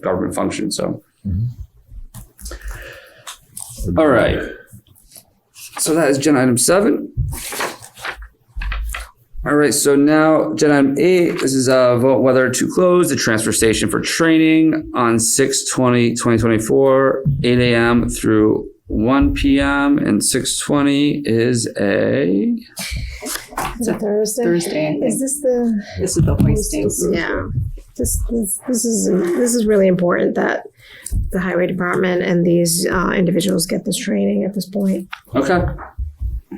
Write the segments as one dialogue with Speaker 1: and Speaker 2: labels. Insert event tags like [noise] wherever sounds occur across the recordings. Speaker 1: government function. So,
Speaker 2: Mhm.
Speaker 1: All right. So that is gen item seven. All right. So now gen item eight. This is a vote whether to close the transfer station for training on 6 2024, 8 a.m. through 1 p.m. And 620 is a.
Speaker 3: Is it Thursday?
Speaker 4: Thursday.
Speaker 3: Is this the,
Speaker 4: This is the hoisting.
Speaker 5: Yeah,
Speaker 3: this, this,
Speaker 5: this is this is really important that the highway department and these uh, individuals get this training at this point.
Speaker 1: Okay.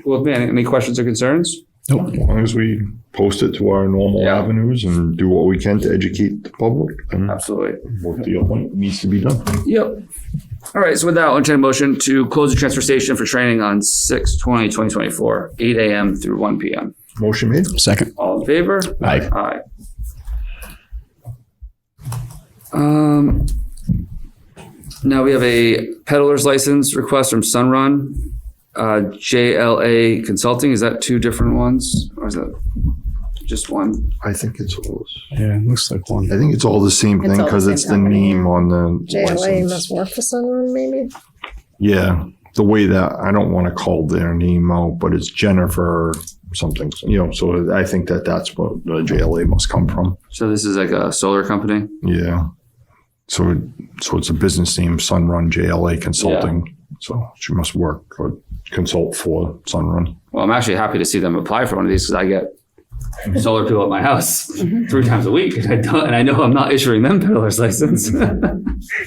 Speaker 1: Well, man, any questions or concerns?
Speaker 2: Nope. As long as we post it to our normal
Speaker 1: Yeah.
Speaker 2: avenues and do what we can to educate the public and
Speaker 1: Absolutely.
Speaker 2: what the appointment needs to be done.
Speaker 1: Yep. All right, so with that, I'll entertain a motion to close the transfer station for training on 6/20/2024, eight AM through one PM.
Speaker 2: Motion made.
Speaker 6: Second.
Speaker 1: All in favor?
Speaker 6: Aye.
Speaker 1: Aye. Um, now we have a peddler's license request from Sunrun, uh, JLA Consulting. Is that two different ones or is that just one?
Speaker 2: I think it's all,
Speaker 6: Yeah, it looks like
Speaker 2: I
Speaker 6: one.
Speaker 2: think it's all the same
Speaker 4: It's
Speaker 2: thing
Speaker 4: all the
Speaker 2: because
Speaker 4: same
Speaker 2: it's the
Speaker 4: company.
Speaker 2: name on the
Speaker 5: JLA
Speaker 2: license.
Speaker 5: must work for someone, maybe.
Speaker 2: Yeah, the way that I don't want to call their name out, but it's Jennifer something. You know, so I think that that's what the JLA must come from.
Speaker 1: So this is like a solar company?
Speaker 2: Yeah. So it, so it's a business name, Sunrun JLA Consulting. So she must work or consult for Sunrun.
Speaker 1: Well, I'm actually happy to see them apply for one of these because I get solar people at my house three times a week, and I don't, and I know I'm not issuing them peddler's license.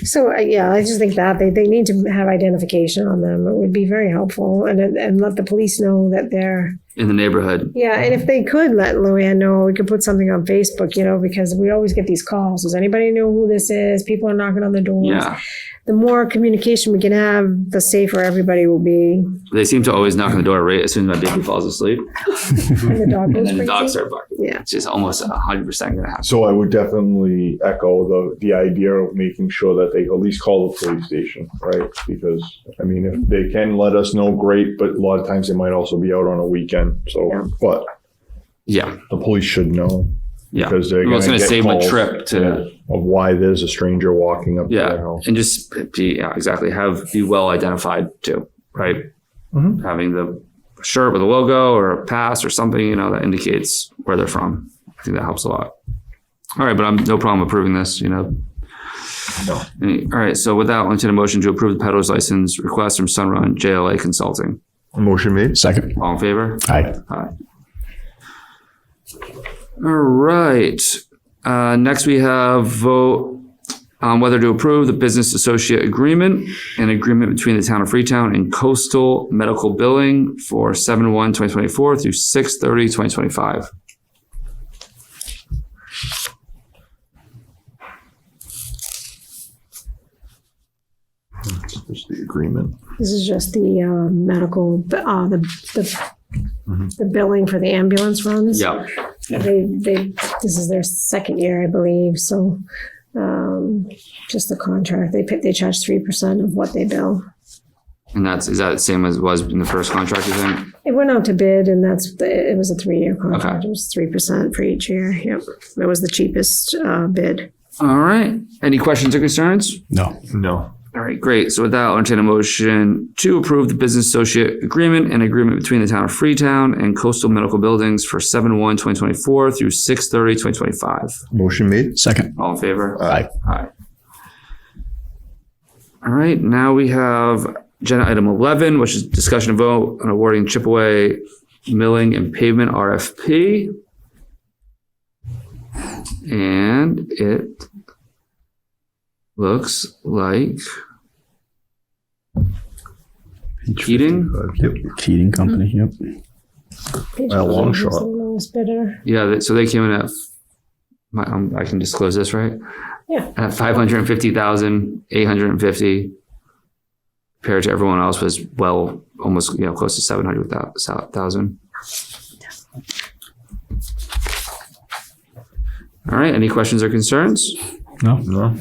Speaker 5: So uh, yeah, I just think that they, they need to have identification on them. It would be very helpful, and and let the police know that they're
Speaker 1: in the neighborhood.
Speaker 5: yeah. And if they could let Luann know, we could put something on Facebook, you know, because we always get these calls. Does anybody know who this is? People are knocking on the doors.
Speaker 1: Yeah,
Speaker 5: The more communication we can have, the safer everybody will be.
Speaker 1: they seem to always knock on the door right as soon as my baby falls asleep,
Speaker 5: And the
Speaker 1: [laughs]
Speaker 5: dog
Speaker 1: and
Speaker 5: goes
Speaker 1: then the
Speaker 5: crazy.
Speaker 1: dogs start barking.
Speaker 5: Yeah.
Speaker 1: It's just almost hundred percent gonna happen.
Speaker 7: So I would definitely echo the, the idea of making sure that they at least call the police station, right? Because, I mean, if they can let us know, great, but a lot of times they might also be out on a weekend,
Speaker 5: Yeah.
Speaker 7: so, but
Speaker 1: Yeah,
Speaker 7: the police should know.
Speaker 1: yeah.
Speaker 7: Because they're
Speaker 1: Well, it's
Speaker 7: gonna
Speaker 1: gonna
Speaker 7: get
Speaker 1: save my
Speaker 7: calls.
Speaker 1: trip to
Speaker 7: Of why there's a stranger walking up to
Speaker 1: Yeah.
Speaker 7: their house.
Speaker 1: and just be yeah, exactly have be well identified too, right?
Speaker 7: Mhm.
Speaker 1: Having the shirt with a logo or a pass or something, you know, that indicates where they're from. I think that helps a lot. All right, but I'm no problem approving this, you know.
Speaker 7: No.
Speaker 1: Any- All right, so with that, I'll entertain a motion to approve the peddler's license request from Sunrun JLA Consulting.
Speaker 2: Motion made.
Speaker 6: Second.
Speaker 1: All in favor?
Speaker 6: Aye.
Speaker 1: All right. Uh, next, we have vote on whether to approve the business associate agreement, an agreement between the town of Freetown and Coastal Medical Billing for 7 1 2024 through 6 30 2025.
Speaker 2: Just the agreement.
Speaker 5: This is just the uh, medical, uh, the, the, the billing for the ambulance runs.
Speaker 1: Mm-hmm. Yeah.
Speaker 5: They, they, this is their second year, I believe, so, um, just the contract, they pick, they charge three percent of what they bill.
Speaker 1: And that's, is that the same as was in the first contract, you think?
Speaker 5: It went out to bid and that's, it was a three-year contract,
Speaker 1: Okay.
Speaker 5: it was three percent for each year, yep. It was the cheapest, uh, bid.
Speaker 1: All right. Any questions or concerns?
Speaker 6: No.
Speaker 2: No.
Speaker 1: All right, great. So with that, I'll entertain a motion to approve the business associate agreement and agreement between the town of Freetown and Coastal Medical Buildings for 7 1 2024 through 6 30 2025.
Speaker 2: Motion made.
Speaker 6: Second.
Speaker 1: All in favor?
Speaker 6: Aye.
Speaker 1: Aye. All right, now we have agenda item 11, which is discussion and vote on awarding Chipaway Milling and Pavement RFP. And it looks like heating.
Speaker 2: Yep.
Speaker 6: Heating company, yep.
Speaker 2: A long
Speaker 5: Just
Speaker 2: shot.
Speaker 5: the lowest bidder.
Speaker 1: Yeah, they- so they came in at, my, um, I can disclose this, right?
Speaker 5: Yeah.
Speaker 1: At five hundred and fifty thousand, eight hundred and fifty. Compared to everyone else was well, almost, you know, close to seven hundred thousand. All right, any questions or concerns?
Speaker 6: No.
Speaker 2: No.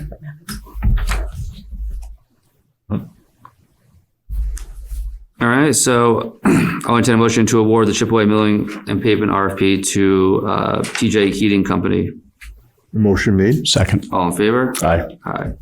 Speaker 1: All right, so [clears throat] I'll entertain a motion to award the Chipaway Milling and Pavement RFP to, uh, TJ Heating Company
Speaker 8: Motion made.
Speaker 1: Second.
Speaker 7: All in favor?
Speaker 1: Aye.
Speaker 7: Aye.